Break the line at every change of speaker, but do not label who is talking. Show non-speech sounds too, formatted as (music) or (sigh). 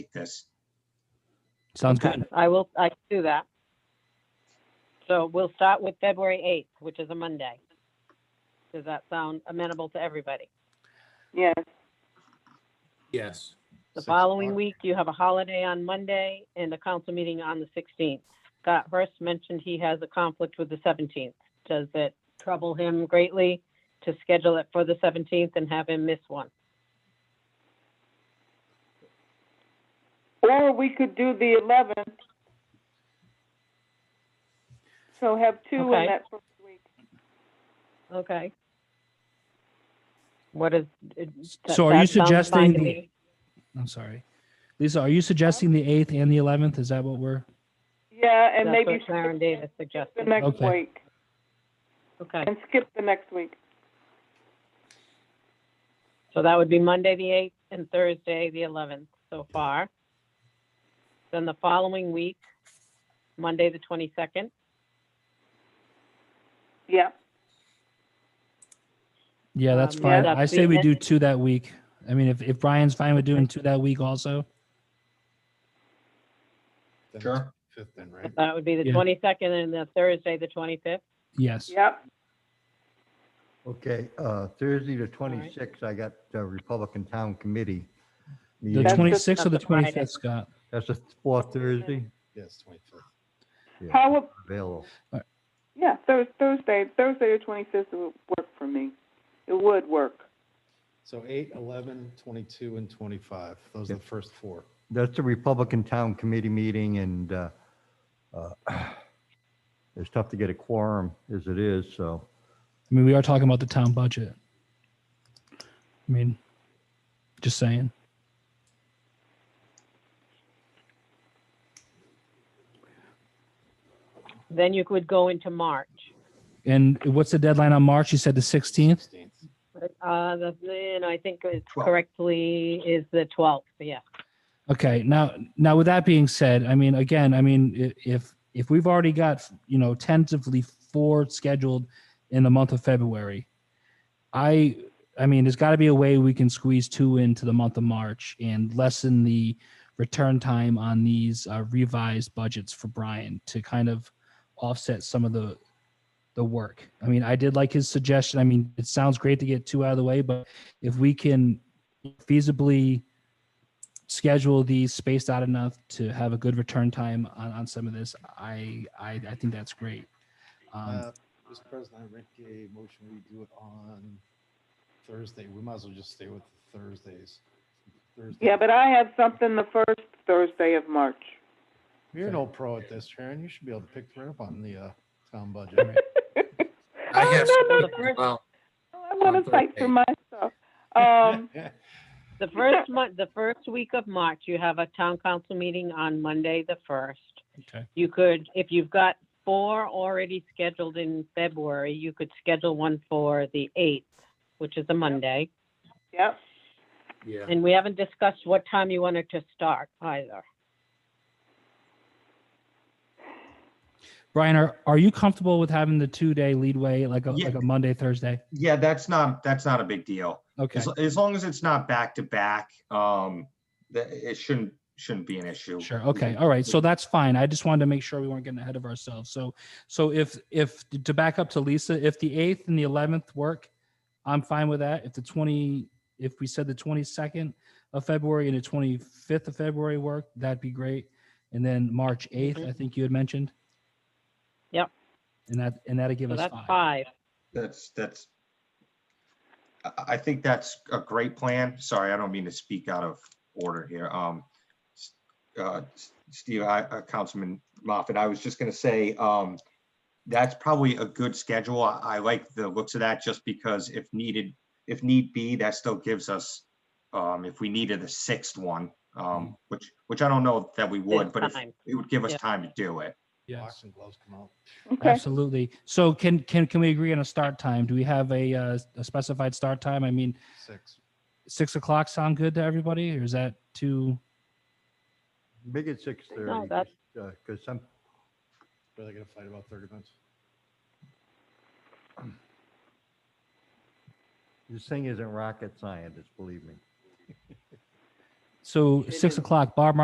this.
Sounds
Okay,
good.
I will, I can do that. So we'll start with February 8th, which is a Monday. Does that sound amenable to everybody?
Yes,
Yes.
The
Six
following
o'clock.
week, you have a holiday on Monday and a council meeting on the 16th. Scott Hurst mentioned he has a conflict with the 17th. Does it trouble him greatly to schedule it for the 17th and have him miss one?
or we could do the eleventh. So have two in
Okay.
that first week.
Okay. What is? it- that-
So are you
that sounds fine
suggesting
to
the-
me.
I'm sorry. Lisa, are you suggesting the 8th and the 11th? Is that what we're?
Yeah,
That's
and maybe
what Clarence
skip
Davis
the
suggested.
next
Okay.
week,
Okay,
and skip the next week.
so that would be Monday, the 8th, and Thursday, the 11th so far. Then the following week, Monday, the 22nd,
Yeah,
Yeah, that's
Um,
fine.
yeah,
I
that's
say we
the-
do two that week. I mean, if, if Brian's fine with doing two that week also.
Then
Sure.
it's Fifth then, right?
that would be the
Yeah.
22nd, and the Thursday, the 25th.
Yes.
yep,
Okay, uh, Thursday the
right.
26th, I got uh, Republican Town Committee.
The
meeting.
That's just
26th or the
not the Friday.
25th, Scott?
That's the fourth Thursday
Yes, twenty-fifth.
Yeah.
how, ab-
available.
yeah, Thurs Thursday, Thursday the twenty-fifth would work for me. It would work.
So eight, eleven, twenty-two, and twenty-five. Those are the first four.
That's the Republican Town Committee meeting and uh, uh, (clears throat) it's tough to get a quorum as it is, so.
I mean, we are talking about the town budget. I mean, just saying.
Then you could go into March.
And what's the deadline on March? You said the 16th?
Sixteenth.
Uh, the, and I think it's
Twelve.
correctly is the 12th, yeah.
Okay, now, now with that being said, I mean, again, I mean, i- if, if we've already got, you know, tentatively four scheduled in the month of February, I, I mean, there's gotta be a way we can squeeze two into the month of March and lessen the return time on these uh, revised budgets for Brian to kind of offset some of the, the work. I mean, I did like his suggestion. I mean, it sounds great to get two out of the way, but if we can feasibly schedule these spaced out enough to have a good return time on, on some of this, I, I, I think that's great. Um,
Uh, Mr. President, I make a motion, we do it on Thursday. We might as well just stay with Thursdays. Thursday.
Yeah, but I have something the first Thursday of March.
You're an old pro at this, Sharon. You should be able to pick right up on the, uh, town budget.
(laughs)
I
Oh,
have
no, no,
something as well.
I want
on
to fight
Thursday.
for my stuff.
(laughs)
Um,
The first month, the first week of March, you have a town council meeting on Monday, the first.
Okay.
You could, if you've got four already scheduled in February, you could schedule one for the eighth, which is a Monday.
yep,
Yeah.
And we haven't discussed what time you wanted to start either.
Brian, are, are you comfortable with having the two day lead way, like a,
Yeah.
like a Monday, Thursday?
Yeah, that's not, that's not a big deal.
Okay,
As, as long as it's not back to back, um, that, it shouldn't, shouldn't be an issue.
sure. Okay, all right. So that's fine. I just wanted to make sure we weren't getting ahead of ourselves. So, so if, if, to back up to Lisa, if the eighth and the eleventh work, I'm fine with that. If the twenty, if we said the twenty-second of February and the twenty-fifth of February work, that'd be great. And then March eighth, I
Mhm.
think you had mentioned.
Yep.
And that, and that'd give
So
us
that's
five.
five.
That's, that's, I, I think that's a great plan. Sorry, I don't mean to speak out of order here. Um, s- uh, s- Steve, I, uh, Councilman Moffett, I was just gonna say, um, that's probably a good schedule. I, I like the looks of that just because if needed, if need be, that still gives us, um, if we needed a sixth one, um, which, which I don't know that we would,
It's
but if-
fine.
it would give us
Yeah.
time to do it.
Yes.
Boxing gloves come out.
okay.
Absolutely. So can, can, can we agree on a start time? Do we have a, uh, a specified start time? I mean,
Six.
six o'clock sound good to everybody or is that too?
Make it 6:30.
that's-
Because some,
Are they gonna fight about thirty minutes?
this thing isn't rocket science, believe me.
So
It
six
is.
o'clock, Bob